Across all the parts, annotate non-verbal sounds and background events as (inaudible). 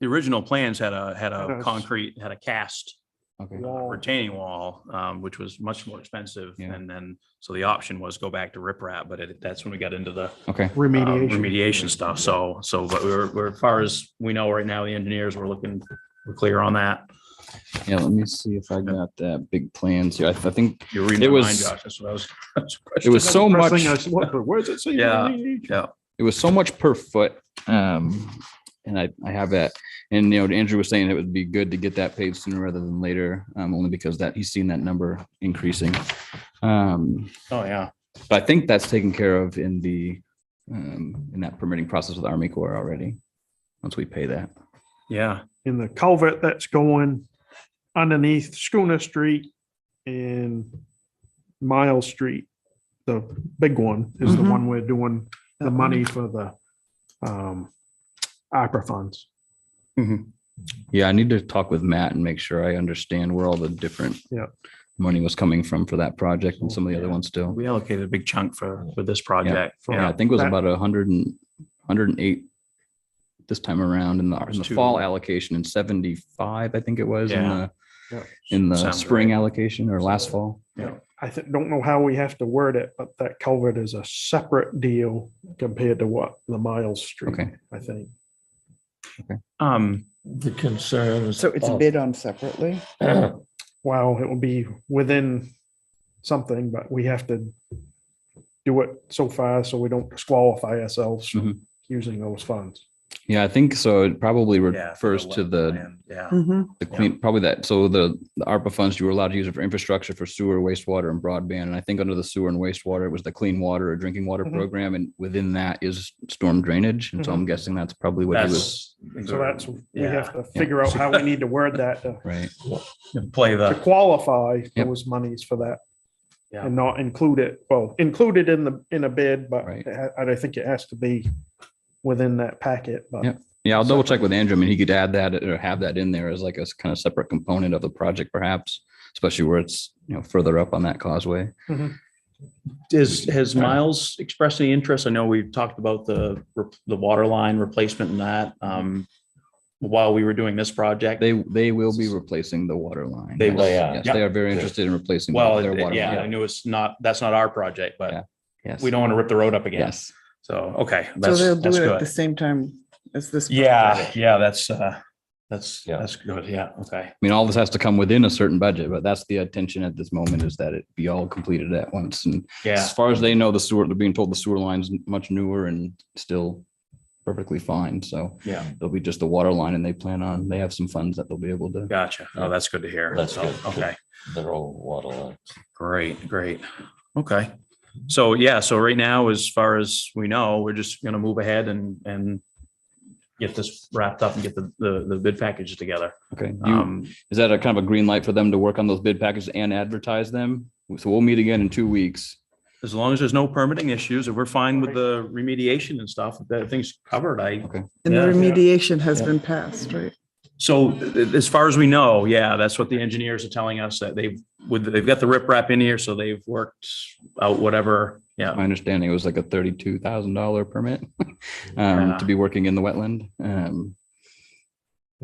the original plans had a, had a Yes. concrete, had a cast Okay. Wall. retaining wall, um, which was much more expensive. Yeah. And then, so the option was go back to riprap, but it, that's when we got into the Okay. um, Remediation. remediation stuff. So, so, but we're, we're, as far as we know right now, the engineers were looking, we're clear on that. Yeah. Let me see if I got that big plans here. I, I think You're reading It my mind, was- Josh. That's what I was. (laughs) it was so much. Pressing us, what- Where does it say? Yeah. remediation? it was so much per foot. Um, and I, I have that, and you know, Andrew was saying it would be good to get that paid sooner rather than later, um, only because that he's seen that number increasing. Um, Oh, yeah. but I think that's taken care of in the, um, in that permitting process with Army Corps already. Once we pay that. Yeah. In the culvert that's going underneath Schooner Street and Miles Street. The big one is the Mhm. Mm-hmm. one we're doing the money for the um opera funds. Mm-hmm. Yeah, I need to talk with Matt and make sure I understand where all the different Yeah. money was coming from for that project and some of the other Yeah. ones still. We allocated a big chunk for, for this project. Yeah, I think it was That- about a hundred and, hundred and eight this time around in the, in was the two. fall allocation and seventy-five, I think it was in Yeah. the, Yeah. in the Sounds spring right. allocation or last fall. I thi- don't know how we have to word it, but that culvert is a separate deal compared to what the Miles Street, Okay. I think. Um, the concern. So it's of- bid (clears throat) on separately? Wow, it will be within something, but we have to do it so far so we don't disqualify ourselves Mm-hmm. from using those funds. Yeah, I think so. It probably yeah, refers to the, wetland, Yeah. Mhm. the clean, probably that. So the, the ARPA funds, you were allowed to use it for infrastructure for sewer, wastewater and broadband. And I think under the sewer and wastewater, it was the clean water or drinking water Mhm. Mm-hmm. program. And within that is storm drainage. And so I'm guessing that's probably what he was, That's. So that's, we Yeah. have to figure out how we need to word that to right? Play to the. qualify Yep. those monies for that. Yeah. And not include it, well, included in the, in a bid, but Right. it ha- I think it has to be within that packet, but. Yep. Yeah, I'll double check with Andrew. I mean, he could add that or have that in there as like a s- kind of separate component of the project perhaps, especially where it's, you know, further up on that causeway. Is, has Miles expressed any interest? I know we've talked about the, rep- the water line replacement and that, um, while we were doing this project. They, they will be replacing the water line. They Yes, will, yeah. yes, They are very interested in replacing. Well, their it- water yeah, I line. knew it's not, that's not our project, Yeah, but Yes. we don't want to rip the road up again. Yes. So, okay. So that's they'll do that's it at the good. same time as this. Yeah, yeah, that's, uh, that's, Yeah. that's good. Yeah, okay. I mean, all this has to come within a certain budget, but that's the attention at this moment is that it be all completed at once. And Yeah, as far as they know, the sewer, they're being told the sewer line's much newer and still perfectly fine. So yeah, it'll be just the water line and they plan on, they have some funds that they'll be able to. gotcha. Oh, that's good to hear. That's So, good. Okay. Their old water line. Great, great. Okay. So yeah, so right now, as far as we know, we're just gonna move ahead and, and get this wrapped up and get the, the, the bid packages together. Okay. You- Um, Is that a kind of a green light for them to work on those bid packages and advertise them? So we'll meet again in two weeks. as long as there's no permitting issues, if we're fine with the remediation and stuff, that thing's covered, I, And the Yeah. remediation has Yeah. been passed, right? so th- th- as far as we know, yeah, that's what the engineers are telling us, that they've, with, they've got the riprap in here, so they've worked out whatever, yeah. My understanding, it was like a thirty-two thousand dollar permit (laughs) um, Yeah. to be working in the wetland. Um,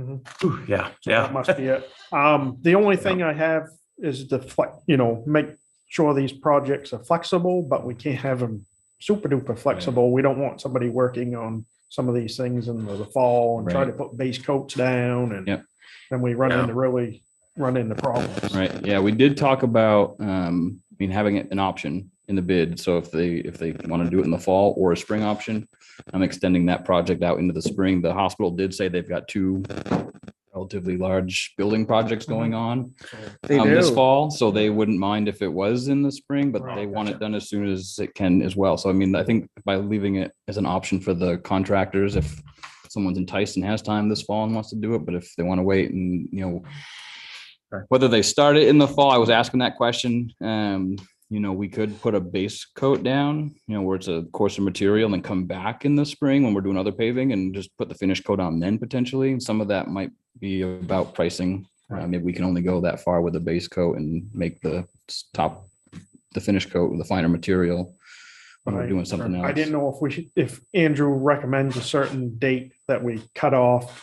Ooh, Yeah, That yeah, must be it. Um, the only thing I have is the flex, you know, make sure these projects are flexible, but we can't have them super duper flexible. We don't want somebody working on some of these things in the fall and try to put base coats down and Yep. then we run Yeah. into really, run into problems. Right, yeah, we did talk about, um, I mean, having it an option in the bid. So if they, if they want to do it in the fall or a spring option, I'm extending that project out into the spring. The hospital did say they've got two relatively large building projects going on. They um, this do. fall, so they wouldn't mind if it was in the spring, but Right, they want it done as soon as it can as well. So I mean, I think by leaving it as an option for the contractors, if someone's enticed and has time this fall and wants to do it, but if they want to wait and, you know, Sure. whether they start it in the fall, I was asking that question. Um, you know, we could put a base coat down, you know, where it's a coarser material and then come back in the spring when we're doing other paving and just put the finish coat on then potentially. And some of that might be about pricing. Uh, maybe we can only go that far with the base coat and make the s- top, the finish coat with a finer material. When we're Right. doing something else. I didn't know if we should, if Andrew recommends a certain date that we cut off